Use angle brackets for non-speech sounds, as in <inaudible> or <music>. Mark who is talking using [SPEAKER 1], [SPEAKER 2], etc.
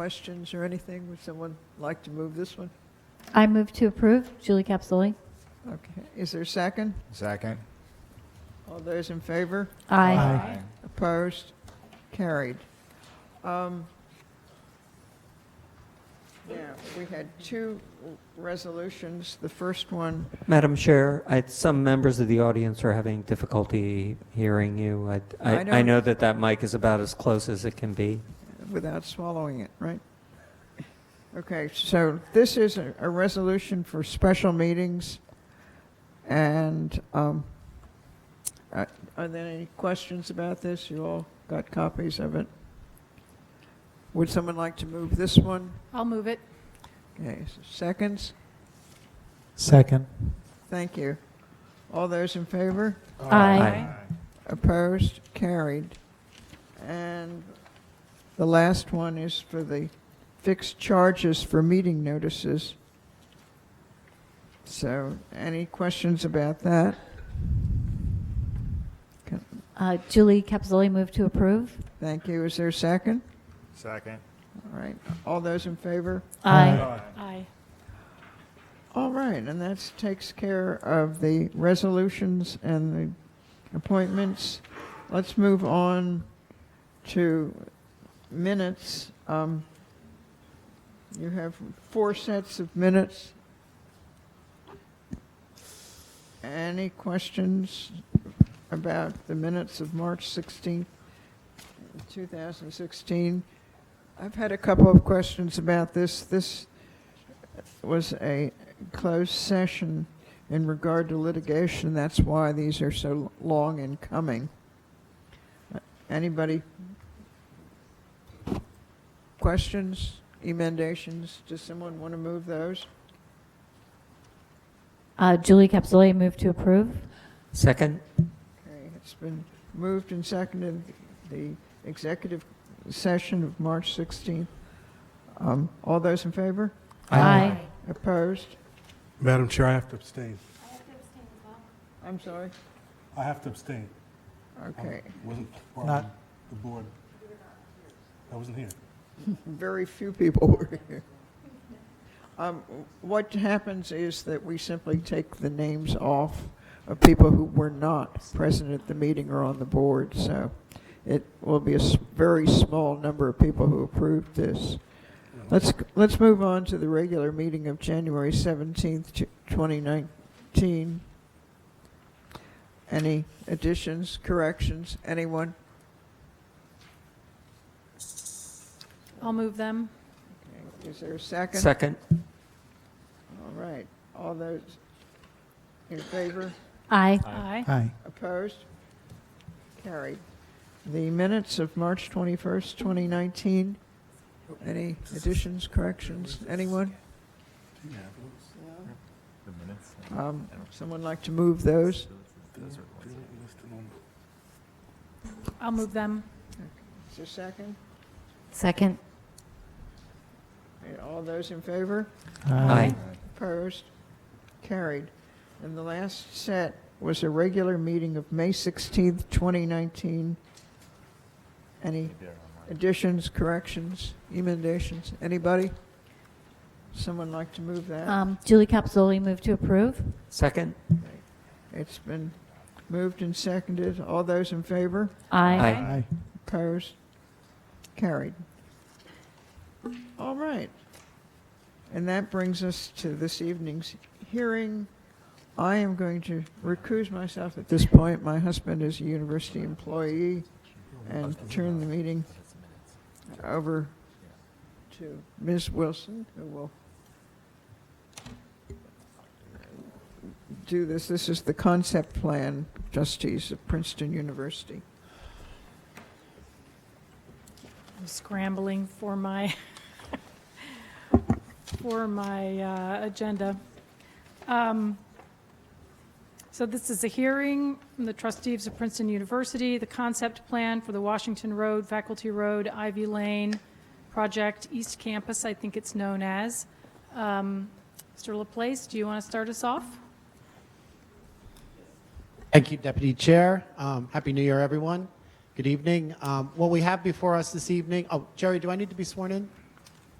[SPEAKER 1] questions or anything? Would someone like to move this one?
[SPEAKER 2] I move to approve. Julie Capizoli.
[SPEAKER 1] Okay, is there a second?
[SPEAKER 3] Second.
[SPEAKER 1] All those in favor?
[SPEAKER 2] Aye.
[SPEAKER 1] Opposed? Carried. Um, Now, we had two resolutions. The first one,
[SPEAKER 4] Madam Chair, I, some members of the audience are having difficulty hearing you. I,
[SPEAKER 1] I
[SPEAKER 4] I, I
[SPEAKER 1] don't-
[SPEAKER 4] know that that mic is about as close as it can be.
[SPEAKER 1] without swallowing it, right? Okay, so this is a, a resolution for special meetings. And, um, uh, are there any questions about this? You all got copies of it? Would someone like to move this one?
[SPEAKER 5] I'll move it.
[SPEAKER 1] Okay, so seconds?
[SPEAKER 3] Second.
[SPEAKER 1] Thank you. All those in favor?
[SPEAKER 2] Aye.
[SPEAKER 1] Opposed? Carried. And the last one is for the fixed charges for meeting notices. So, any questions about that?
[SPEAKER 2] Uh, Julie Capizoli, move to approve.
[SPEAKER 1] Thank you. Is there a second?
[SPEAKER 3] Second.
[SPEAKER 1] All right. All those in favor?
[SPEAKER 2] Aye.
[SPEAKER 5] Aye.
[SPEAKER 1] All right, and that takes care of the resolutions and the appointments. Let's move on to minutes. Um, You have four sets of minutes. Any questions about the minutes of March 16th, 2016? I've had a couple of questions about this. This was a closed session in regard to litigation. That's why these are so long in coming. Anybody? Questions, emendations? Does someone want to move those?
[SPEAKER 2] Uh, Julie Capizoli, move to approve.
[SPEAKER 4] Second?
[SPEAKER 1] Okay, it's been moved and seconded, the executive session of March 16th. Um, All those in favor?
[SPEAKER 2] Aye.
[SPEAKER 1] Opposed?
[SPEAKER 6] Madam Chair, I have to abstain.
[SPEAKER 1] I'm sorry.
[SPEAKER 6] I have to abstain.
[SPEAKER 1] Okay,
[SPEAKER 6] Wasn't part of
[SPEAKER 3] Not-
[SPEAKER 6] the board. I wasn't here.
[SPEAKER 1] very few people were here. Um, What happens is that we simply take the names off of people who were not present at the meeting or on the board, so it will be a s- very small number of people who approved this. Let's, let's move on to the regular meeting of January 17th, t- 2019. Any additions, corrections, anyone?
[SPEAKER 5] I'll move them.
[SPEAKER 1] Is there a second?
[SPEAKER 4] Second?
[SPEAKER 1] All right, all those in favor,
[SPEAKER 2] Aye.
[SPEAKER 5] Aye.
[SPEAKER 3] Aye.
[SPEAKER 1] opposed? Carried. The minutes of March 21st, 2019, any additions, corrections, anyone?
[SPEAKER 3] The minutes.
[SPEAKER 1] Um, Someone like to move those?
[SPEAKER 5] I'll move them.
[SPEAKER 1] Is there a second?
[SPEAKER 2] Second.
[SPEAKER 1] And All those in favor,
[SPEAKER 4] Aye.
[SPEAKER 1] opposed? Carried. And the last set was a regular meeting of May 16th, 2019. Any Additions, corrections, emendations, anybody? Someone like to move that?
[SPEAKER 2] Um, Julie Capizoli, move to approve.
[SPEAKER 4] Second?
[SPEAKER 1] It's been moved and seconded. All those in favor?
[SPEAKER 2] Aye.
[SPEAKER 4] Aye.
[SPEAKER 1] Opposed? Carried. All right. And that brings us to this evening's hearing. I am going to recuse myself at this point. My husband is a university employee and turn the meeting over to Ms. Wilson, who will do this. This is the concept plan, trustees of Princeton University.
[SPEAKER 5] I'm scrambling for my, <laughs> for my uh, agenda. Um, So this is a hearing from the trustees of Princeton University, the concept plan for the Washington Road, Faculty Road, Ivy Lane project, East Campus, I think it's known as. Um, Mr. Laplace, do you want to start us off?
[SPEAKER 7] Thank you, Deputy Chair. Um, Happy New Year, everyone. Good evening. Um, What we have before us this evening, oh, Jerry, do I need to be sworn in?